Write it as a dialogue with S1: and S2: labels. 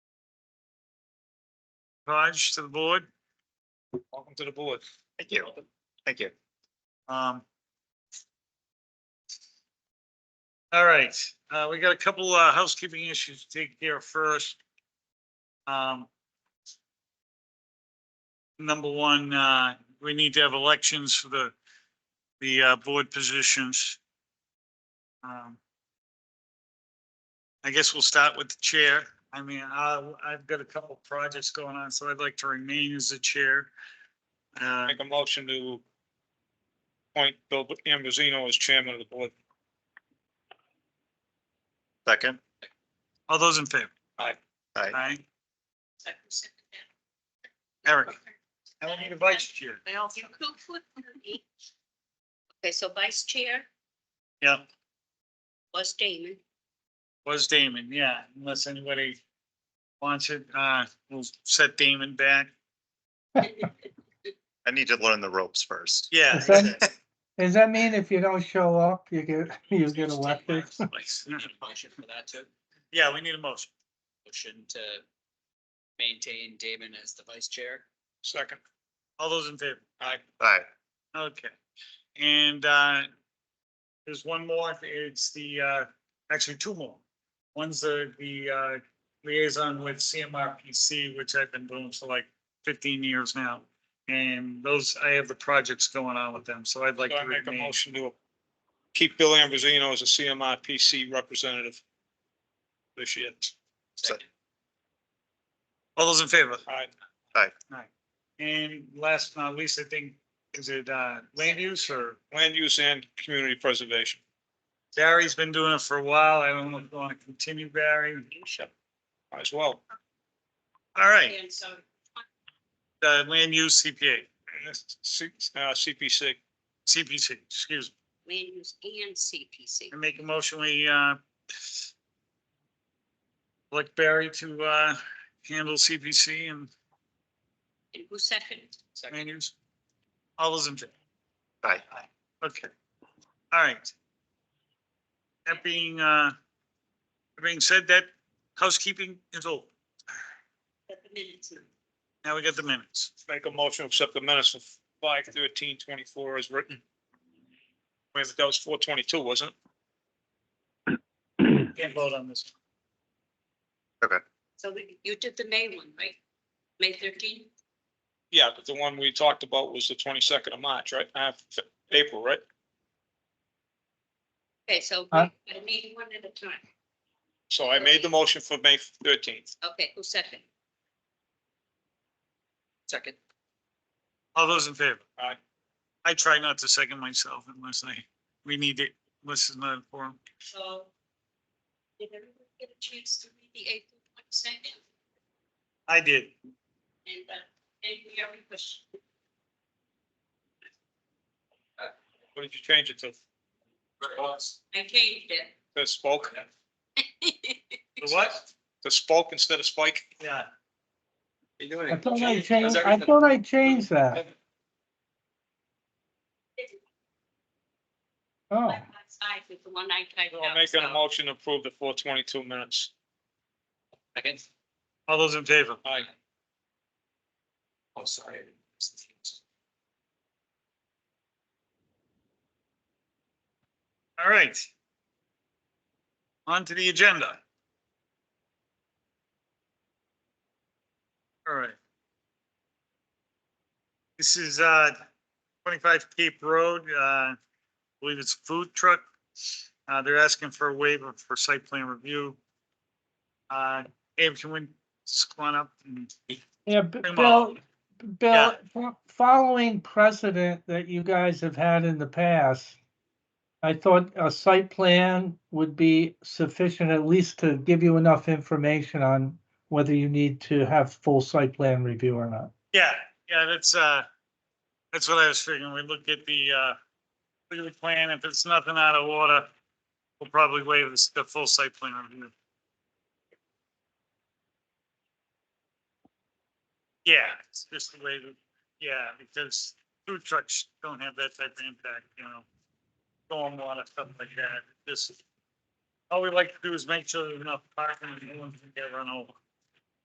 S1: Raj, to the board. Welcome to the board.
S2: Thank you. Thank you.
S1: Um. All right, uh, we got a couple, uh, housekeeping issues to take care of first. Um. Number one, uh, we need to have elections for the, the, uh, board positions. Um. I guess we'll start with the chair. I mean, I, I've got a couple projects going on, so I'd like to remain as the chair. Uh,
S3: Make a motion to appoint Bill Ambrosino as chairman of the board.
S2: Second,
S1: all those in favor?
S2: aye.
S1: Aye. Eric. I will need a vice chair.
S4: I also. Okay, so vice chair
S1: Yeah,
S4: was Damon.
S1: was Damon, yeah, unless anybody wants it, uh, we'll set Damon back.
S2: I need to learn the ropes first.
S1: Yeah.
S5: Does that, does that mean if you don't show up, you get, you get elected?
S6: Motion for that too,
S1: Yeah, we need a motion.
S6: motion to maintain Damon as the vice chair.
S3: Second,
S1: All those in favor?
S3: aye.
S2: Aye,
S1: Okay. And, uh, there's one more, it's the, uh, actually two more. One's the, the, uh, liaison with CMRPC, which I've been doing for like fifteen years now. And those, I have the projects going on with them, so I'd like
S3: So I
S1: to
S3: make a
S1: remain.
S3: motion to keep Bill Ambrosino as a CMRPC representative this year.
S6: Second.
S1: All those in favor?
S3: Aye.
S1: And last but not least, I think, is it, uh, land use or
S3: Land use and community preservation.
S1: Barry's been doing it for a while. I don't know if you want to continue, Barry.
S3: Might As well.
S1: All right,
S4: And so
S1: uh, land use CPA,
S3: C- uh, CPC,
S1: CPC, excuse me.
S4: land use and CPC.
S1: I make a motion, we, uh, elect Barry to, uh, handle CPC and
S4: And who seconded?
S1: land use. All those in favor?
S2: aye.
S1: Okay, all right. That being, uh, that being said, that housekeeping is over.
S4: Got the minutes. now.
S1: Now we got the minutes.
S3: make a motion to accept the minutes of five thirteen twenty-four as written. Wait, that was four twenty-two, wasn't it?
S1: Can't vote on this.
S4: So we- you did the May one, right? May thirteen?
S3: Yeah, but the one we talked about was the twenty-second of March, right? Uh, F- April, right?
S4: Okay, so we-
S5: Huh?
S4: I need one at a time.
S3: So I made the motion for May thirteenth.
S4: Okay, who seconded?
S6: Second.
S1: All those in favor?
S3: Aye.
S1: I try not to second myself unless I, we need it, unless it's not a forum.
S4: So did everyone get a chance to read the April twenty second?
S1: I did.
S4: And, uh, and we have a question.
S3: What did you change it to?
S4: I changed it.
S3: To spoke,
S1: The what?
S3: to spoke instead of spike?
S1: Yeah.
S5: I thought I changed, I thought I changed that. Oh,
S4: Side with the one I typed
S3: So
S4: out.
S3: I'm making
S4: so-
S3: a motion to approve the four twenty-two minutes.
S6: Second.
S1: All those in favor?
S3: Aye.
S6: Oh, sorry.
S1: All right. On to the agenda. All right. This is uh, 25 Cape Road. uh, I believe it's a food truck. Uh, They're asking for a waiver for site plan review. Uh, Abe, can we just come on up? and-
S5: yeah, B-
S1: Pretty
S5: Bill,
S1: much.
S5: Bill, fo- following precedent that you guys have had in the past, I thought a site plan would be sufficient at least to give you enough information on whether you need to have full site plan review or not.
S1: Yeah, yeah, that's, uh, that's what I was figuring. We look at the, uh, look at the plan. If it's nothing out of order, we'll probably waive this, the full site plan review. Yeah, it's just the way that, yeah, because food trucks don't have that type of impact, you know. Stormwater, stuff like that. This, all we like to do is make sure there's enough parking and no one can get run over.